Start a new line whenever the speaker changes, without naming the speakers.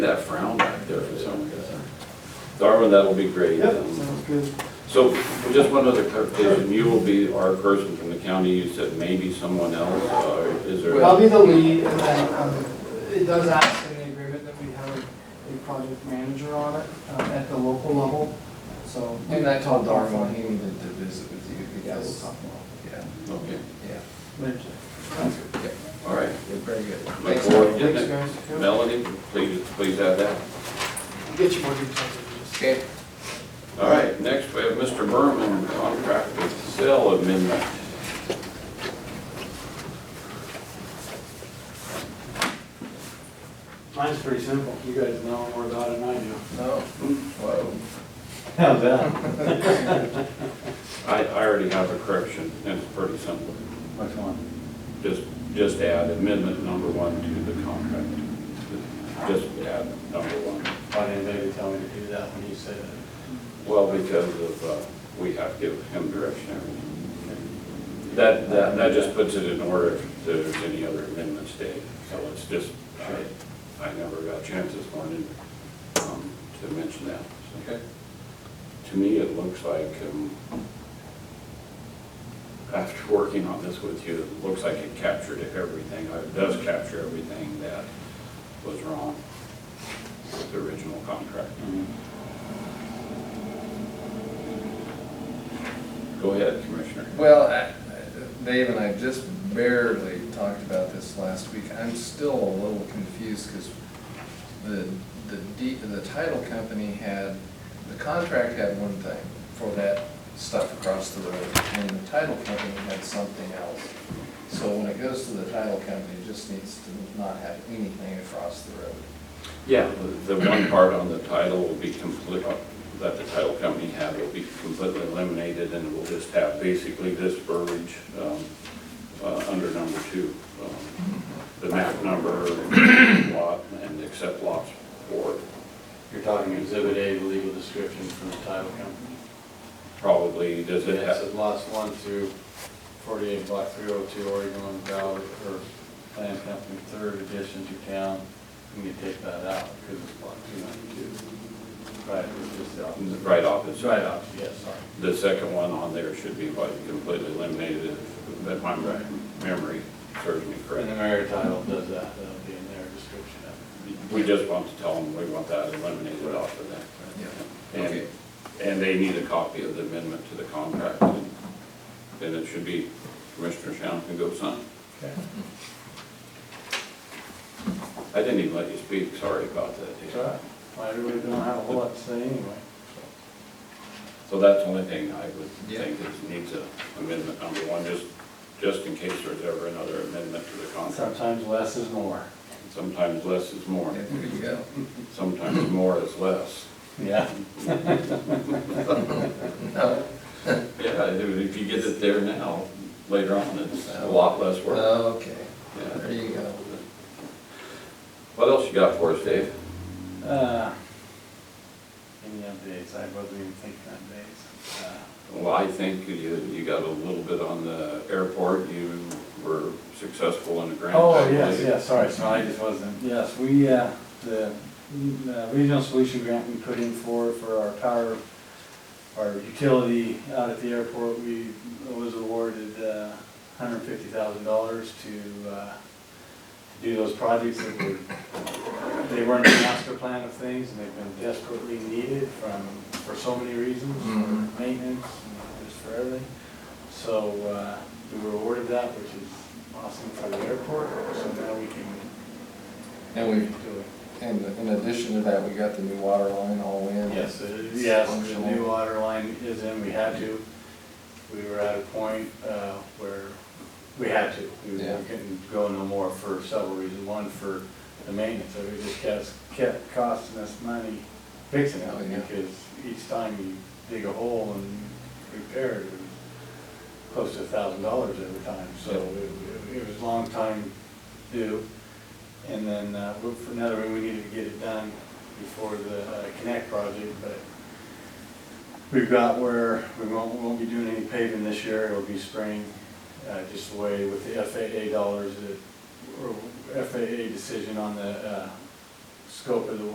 That frown back there for some reason. Darwin, that'll be great. Um,
Sounds good.
So just one other clarification, you will be our person from the county, you said maybe someone else, uh, is there?
I'll be the lead, and then, um, it does ask in the agreement that we have a- a project manager on it, um, at the local level, so.
And I told Darwin he needed to visit with you because, yeah,
Okay,
yeah.
Later.
Yeah,
all right.
Very good.
Look
Thanks.
forward to getting
Thanks,
it.
guys.
Melanie, please, please add that.
Get you more details if you just.
Okay,
All right, next we have Mr. Berman, contract with Cell amendment.
Mine's pretty simple. You guys know more about it than I do.
no, whoa.
How's that?
I, I already have a correction, and it's pretty simple.
Which one?
Just, just add amendment number one to the contract. Just add number one.
Why didn't they tell me to do that when you said it?
Well, because of, uh, we have to give him direction. every time. That, that, that just puts it in order if there's any other amendments, Dave. So it's just, I, I never got a chance this morning, um, to mention that. So
Okay.
To me, it looks like, um, after working on this with you, it looks like it captured everything, or it does capture everything that was wrong with the original contract. Go ahead, Commissioner.
Well, I- Dave and I just barely talked about this last week. I'm still a little confused because the, the, D- the title company had, the contract had one thing for that stuff across the road, and the title company had something else. So when it goes to the title company, it just needs to not have anything across the road.
Yeah, the the one part on the title will be complete, uh, that the title company had will be completely eliminated, and we'll just have basically this verbiage um, uh, under number two. um, The map number, lot, and except lots four,
You're talking exhibit A, the legal description from the title company.
probably, does it
And It
have,
says lots one through forty-eight, block three oh two, Oregon, Valley, or Land Company, third addition to town. You can take that out because it's block two ninety-two. Right, it's just the opposite.
right off,
It's
it's
right off, yes, sorry.
The second one on there should be like completely eliminated, if my memory serves me
And the
correct.
mayor title does that, that'll be in their description of
We just want to tell them we want that eliminated off of that.
Okay.
And, and they need a copy of the amendment to the contract, and then it should be Commissioner Shannon can go sign.
it.
I didn't even let you speak, sorry about
It's
that.
all right. Well, everybody don't have a whole lot to say anyway.
So that's the only thing I would
Yeah.
think is needs a amendment number one, just, just in case there's ever another amendment to the contract.
Sometimes less is more.
Sometimes less is more,
Yeah, There you go.
sometimes more is less.
Yeah.
No,
Yeah, if you get it there now, later on, it's a lot less
Uh,
work.
okay,
Yeah.
there you go.
What else you got for us, Dave?
Uh, Any updates? I wasn't even thinking updates. Uh,
Well, I think you, you got a little bit on the airport, you were successful in the grant.
Oh,
I
yes,
believe.
yes, sorry, so I just wasn't. Yes, we, uh, the uh, Regional Solution Grant we put in for, for our power, our utility out at the airport, we was awarded uh, hundred and fifty thousand dollars to uh, do those projects that were, they weren't in the master plan of things, and they've been desperately needed from, for so many reasons,
Mhm.
for maintenance, and just for everything. So uh, we were awarded that, which is awesome for the airport, so now we can
And we
do it.
And in addition to that, we got the new water line all in.
Yes, it is, yes, the new water line is in, we had to. We were at a point uh, where we had to. We
Yeah.
couldn't go no more for several reasons. One, for the maintenance, so it just kept, kept costing us money fixing
Oh,
it.
yeah.
Because each time you dig a hole and repair it, it was close to a thousand dollars every time. So it- it was a long time due. And then, uh, we- for another one, we needed to get it done before the uh, Connect project, but we've got where we won't, won't be doing any paving this year, it'll be spring, uh, just the way with the FAA dollars, that- or FAA decision on the, uh, scope of the